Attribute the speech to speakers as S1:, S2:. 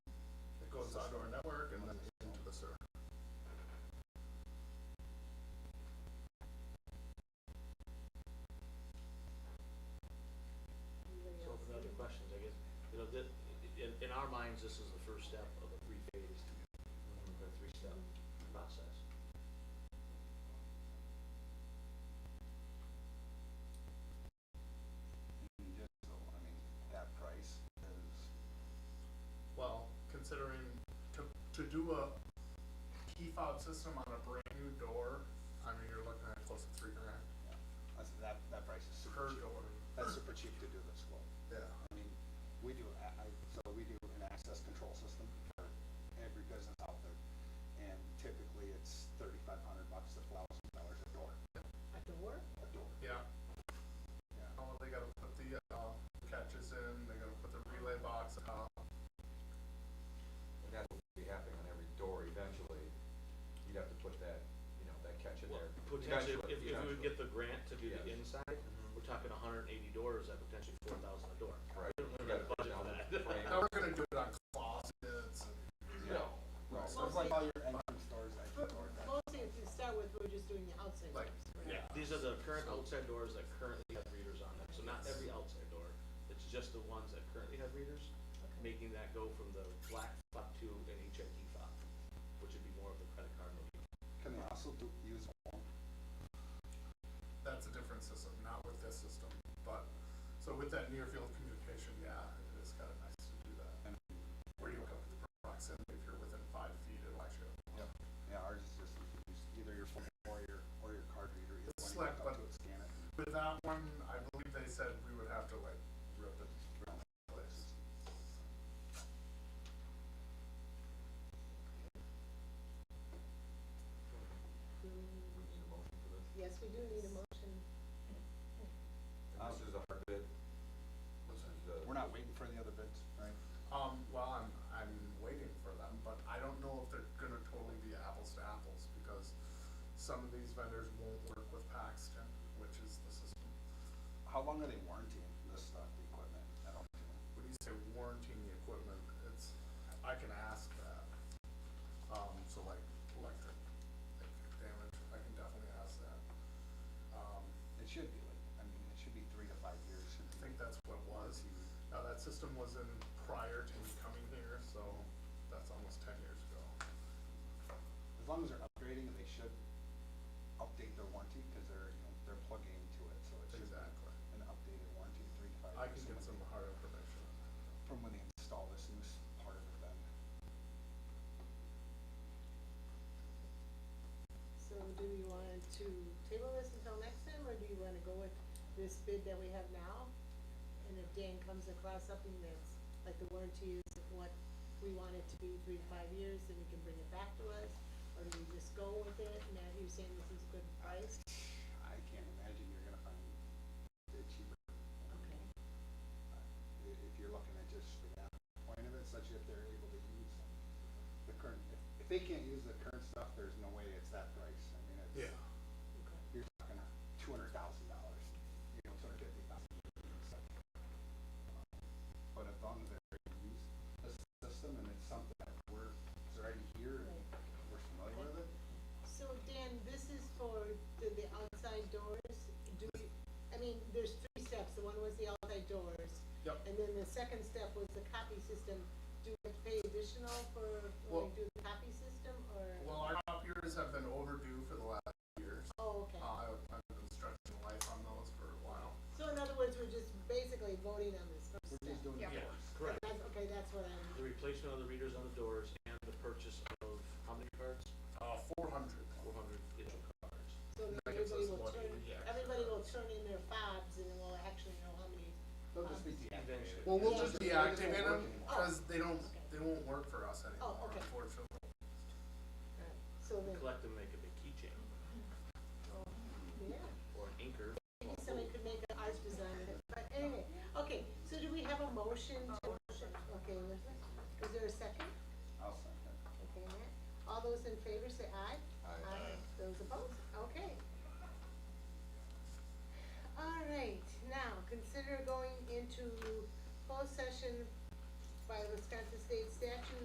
S1: to do a key fob system on a brand new door, I mean, you're looking at close to three grand
S2: That's, that, that price is
S1: per
S2: super cheap.
S1: door.
S2: That's super cheap to do this quote.
S1: Yeah.
S2: I mean, we do, a- I, so we do an access control system for every business out there. And typically it's thirty-five hundred bucks to thousand dollars a door,
S3: A door?
S2: a door,
S1: Yeah,
S2: yeah.
S1: Oh, they gotta put the, uh, catches in, they gotta put the relay box up.
S4: And that's what would be happening on every door eventually. You'd have to put that, you know, that catch in
S5: Well,
S4: there.
S5: Potentially,
S4: Eventually,
S5: if, if we would
S4: eventually.
S5: get the grant to do the
S4: Yes.
S5: inside, we're talking hundred and eighty doors at potentially four thousand a door.
S4: Right.
S5: We don't have a budget for that.
S1: Now, we're gonna do it on closets and
S4: No,
S2: Right,
S4: right.
S2: so it's like all your entrance doors, exit doors. that-
S3: Mostly to start with, we're just doing the outside
S1: Like-
S3: doors. right?
S5: Yeah, these are the current outside doors that currently have readers on them, so not every outside door, it's just the ones that currently have readers, making that go from the black fob to an HID fob, which would be more of the credit card mode.
S2: Can they also do, use phone?
S1: that's a different system, not with this system. But, so with that near field communication, yeah, it is kind of nice to do that. Where you look up at the proximity, if you're within five feet, it'll actually,
S2: Yeah, ours is just, you use either your phone or your, or your card reader, either
S1: It's
S2: one,
S1: like
S2: you hook up to
S1: what-
S2: it, scan it. and
S1: with that one, I believe they said we would have to like rip it.
S2: it's just-
S4: We
S3: Do-
S4: need a motion for this.
S3: Mm-hmm. Yes, we do need a motion.
S4: And This is a hard bid. This is a.
S2: We're not waiting for the other bids, right?
S1: Um, well, I'm, I'm waiting for them, but I don't know if they're gonna totally be apples to apples because some of these vendors won't work with Paxton, which is the system.
S2: How long are they warranting this stuff, the equipment? I don't know.
S1: when you say warranting the equipment, it's, I can ask that. Um, so like electric, electric damage, I can definitely ask that. Um,
S2: It should be like, I mean, it should be three to five years. should
S1: I
S2: be-
S1: think that's what it was. Now, that system was in prior to me coming here, so that's almost ten years ago.
S2: As long as they're upgrading, they should update their warranty because they're, you know, they're plugging into it, so it should be
S1: Exactly.
S2: an updated warranty, three to five years.
S1: I can
S2: from
S1: get
S2: when
S1: some
S2: they-
S1: hard information.
S2: From when they install this new s- part of it then.
S3: So do you want to table this until next time, or do you wanna go with this bid that we have now? And if Dan comes across something that's, like the warranty is what we want it to be, three to five years, then you can bring it back to us? Or do we just go with it, now you're saying this is good price?
S2: I can't imagine you're gonna find it cheaper.
S3: Okay.
S2: I- If you're looking at just the app point of it, such that they're able to use the current, if- if they can't use the current stuff, there's no way it's that price. I mean, it's.
S3: Okay.
S2: you're talking two hundred thousand dollars, you know, two hundred fifty thousand. But as long as they use this system and it's something that we're, it's already here and we're familiar with it,
S3: So Dan, this is for the, the outside doors, do we, I mean, there's three steps, the one was the outside doors.
S1: Yep.
S3: And then the second step was the copy system, do we have to pay additional for,
S1: Well-
S3: when we do the copy system, or,
S1: Well, our copiers have been overdue for the last years.
S3: oh, okay.
S1: Uh, I've- I've been stretching life on those for a while.
S3: So in other words, we're just basically voting on this first
S2: we're
S3: step.
S2: just doing the
S1: Yeah.
S2: doors.
S5: Correct.
S3: That's, okay, that's what I'm,
S5: The replacement of the readers on the doors and the purchase of, how many cards?
S1: Uh, four hundred.
S5: Four hundred digital cards.
S3: so then
S1: That gives
S3: everybody
S1: us
S3: will
S1: what,
S3: turn,
S1: yeah.
S3: everybody will turn in their fobs, and then we'll actually know how many,
S2: They'll just be
S5: Eventually.
S2: deactivated.
S1: Well, we'll
S3: Yeah.
S1: just
S2: They won't
S1: deactivate
S2: work
S1: them,
S2: anymore.
S1: cause they don't, they won't work for us anymore,
S3: Oh, okay.
S1: unfortunately.
S3: Alright, so then,
S5: Collect them, make a big keychain
S3: yeah.
S5: or an anchor.
S3: Maybe somebody could make an art design, of it. but anyway, okay, so do we have a motion to, okay, is there a second?
S2: I'll sign that.
S3: Okay, Matt, all those in favor say aye?
S4: Aye.
S3: Those opposed, okay. All right, now, consider going into closed session by Wisconsin State Statute